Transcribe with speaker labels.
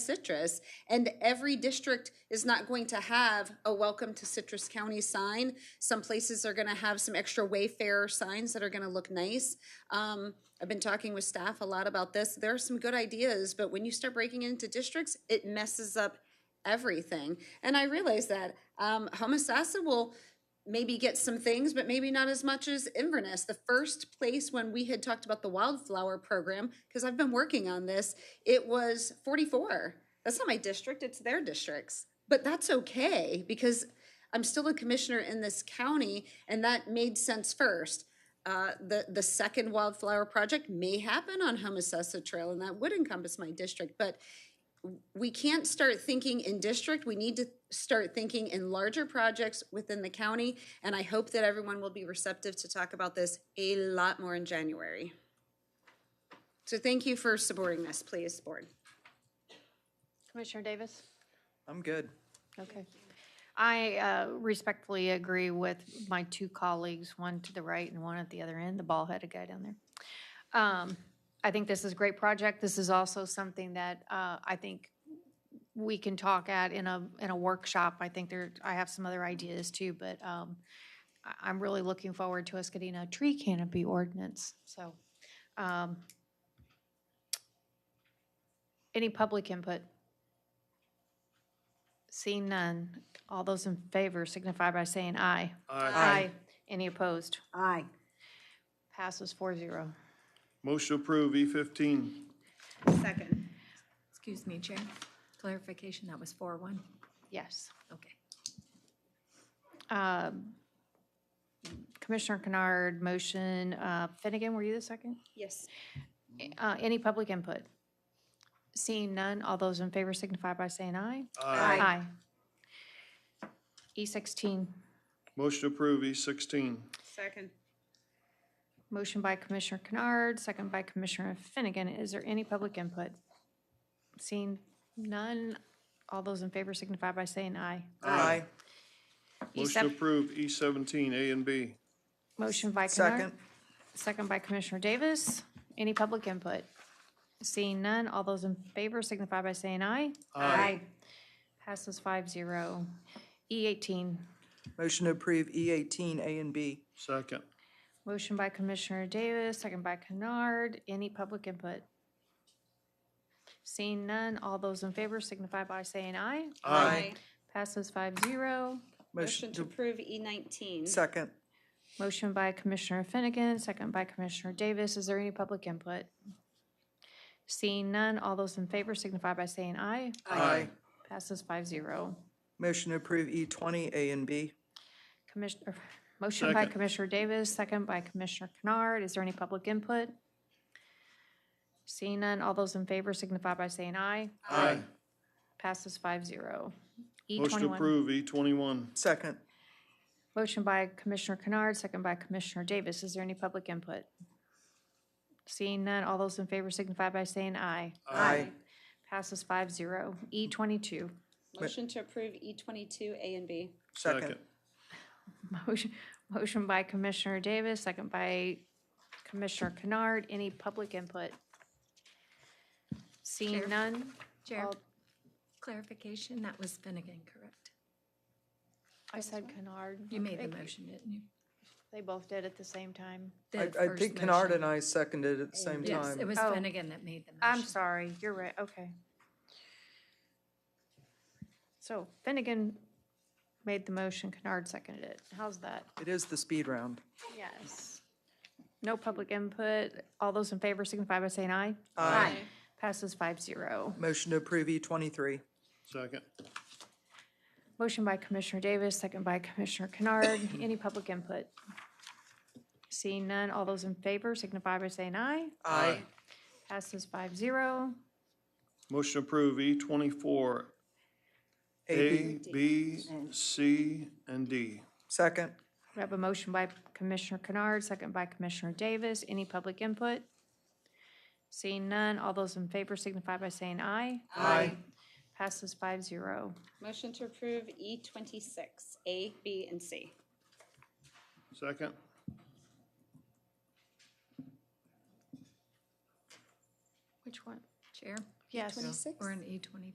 Speaker 1: citrus and every district is not going to have a welcome to citrus county sign some places are going to have some extra wayfarer signs that are going to look nice um, i've been talking with staff a lot about this there are some good ideas but when you start breaking into districts it messes up everything and i realize that um, homosassa will maybe get some things, but maybe not as much as Inverness. The first place when we had talked about the wildflower program, because I've been working on this, it was 44. That's not my district, it's their districts. But that's okay because I'm still a commissioner in this county and that made sense first. Uh, the, the second wildflower project may happen on Homosassa Trail and that would encompass my district, but we can't start thinking in district, we need to start thinking in larger projects within the county. And I hope that everyone will be receptive to talk about this a lot more in January. So thank you for supporting this, please, board.
Speaker 2: Commissioner Davis?
Speaker 3: I'm good.
Speaker 2: Okay. I uh, respectfully agree with my two colleagues, one to the right and one at the other end, the bald-headed guy down there. Um, I think this is a great project. This is also something that uh, I think we can talk at in a, in a workshop. I think there, I have some other ideas too, but um, I- I'm really looking forward to us getting a tree canopy ordinance, so. um, Any public input? Seeing none, all those in favor signify by saying aye.
Speaker 1: Aye.
Speaker 2: Any opposed?
Speaker 1: Aye.
Speaker 2: Passes four zero.
Speaker 4: Motion to approve E fifteen.
Speaker 5: Second. Excuse me, Chair. Clarification, that was four one.
Speaker 2: Yes.
Speaker 5: Okay.
Speaker 2: Um, Commissioner Kennard, motion, uh, Finnegan, were you the second?
Speaker 1: Yes.
Speaker 2: Uh, Any public input? Seeing none, all those in favor signify by saying aye.
Speaker 1: Aye.
Speaker 2: Aye. E sixteen,
Speaker 4: Motion to approve E sixteen.
Speaker 1: Second.
Speaker 2: motion by Commissioner Kennard, second by Commissioner Finnegan. Is there any public input? Seeing none, all those in favor signify by saying aye.
Speaker 3: Aye.
Speaker 2: E
Speaker 4: Motion to
Speaker 2: seven,
Speaker 4: approve E seventeen, A and B.
Speaker 2: motion by Kennard.
Speaker 3: Second.
Speaker 2: Second by Commissioner Davis. Any public input? Seeing none, all those in favor signify by saying aye.
Speaker 1: Aye.
Speaker 2: Passes five zero. E eighteen,
Speaker 3: Motion to approve E eighteen A and B.
Speaker 4: Second.
Speaker 2: motion by Commissioner Davis, second by Kennard. Any public input? Seeing none, all those in favor signify by saying aye. Passes five zero.
Speaker 1: Motion to approve E nineteen.
Speaker 3: Second.
Speaker 2: Motion by Commissioner Finnegan, second by Commissioner Davis. Is there any public input? Seeing none, all those in favor signify by saying aye.
Speaker 3: Aye.
Speaker 2: Passes five zero.
Speaker 3: Motion to approve E twenty A and B.
Speaker 2: Commissioner, motion by
Speaker 4: Second.
Speaker 2: Commissioner Davis, second by Commissioner Kennard. Is there any public input? Seeing none, all those in favor signify by saying aye.
Speaker 4: Aye.
Speaker 2: Passes five zero. E
Speaker 4: Motion to
Speaker 2: twenty-one.
Speaker 4: approve E twenty-one.
Speaker 3: Second.
Speaker 2: Motion by Commissioner Kennard, second by Commissioner Davis. Is there any public input? Seeing none, all those in favor signify by saying aye.
Speaker 3: Aye.
Speaker 2: Passes five zero. E twenty-two.
Speaker 1: Motion to approve E twenty-two, A and B.
Speaker 3: Second.
Speaker 2: Motion- Motion by Commissioner Davis, second by Commissioner Kennard. Any public input? Seeing
Speaker 5: Chair.
Speaker 2: none?
Speaker 5: Chair,
Speaker 2: all-
Speaker 5: clarification, that was Finnegan, correct?
Speaker 2: I said Kennard.
Speaker 5: You made the motion, didn't you?
Speaker 2: They both did at the same time.
Speaker 5: The
Speaker 3: I, I
Speaker 5: first
Speaker 3: think Kennard
Speaker 5: motion.
Speaker 3: and I seconded at the same
Speaker 5: Yes, it
Speaker 3: time.
Speaker 5: was
Speaker 2: Oh.
Speaker 5: Finnegan that made the motion.
Speaker 2: I'm sorry, you're right, okay. So Finnegan made the motion, Kennard seconded it. How's that?
Speaker 3: It is the speed round.
Speaker 2: Yes. No public input. All those in favor signify by saying aye.
Speaker 3: Aye.
Speaker 2: Passes five zero.
Speaker 3: Motion to approve E twenty-three.
Speaker 4: Second.
Speaker 2: Motion by Commissioner Davis, second by Commissioner Kennard. Any public input? Seeing none, all those in favor signify by saying aye.
Speaker 3: Aye.
Speaker 2: Passes five zero.
Speaker 4: Motion to approve E twenty-four,
Speaker 3: A,
Speaker 4: A,
Speaker 3: B.
Speaker 4: B, C, and D.
Speaker 3: Second.
Speaker 2: We have a motion by Commissioner Kennard, second by Commissioner Davis. Any public input? Seeing none, all those in favor signify by saying aye.
Speaker 3: Aye.
Speaker 2: Passes five zero.
Speaker 1: Motion to approve E twenty-six, A, B, and C.
Speaker 4: Second.
Speaker 2: Which one?
Speaker 5: Chair,
Speaker 2: Yes.
Speaker 5: we're in E twenty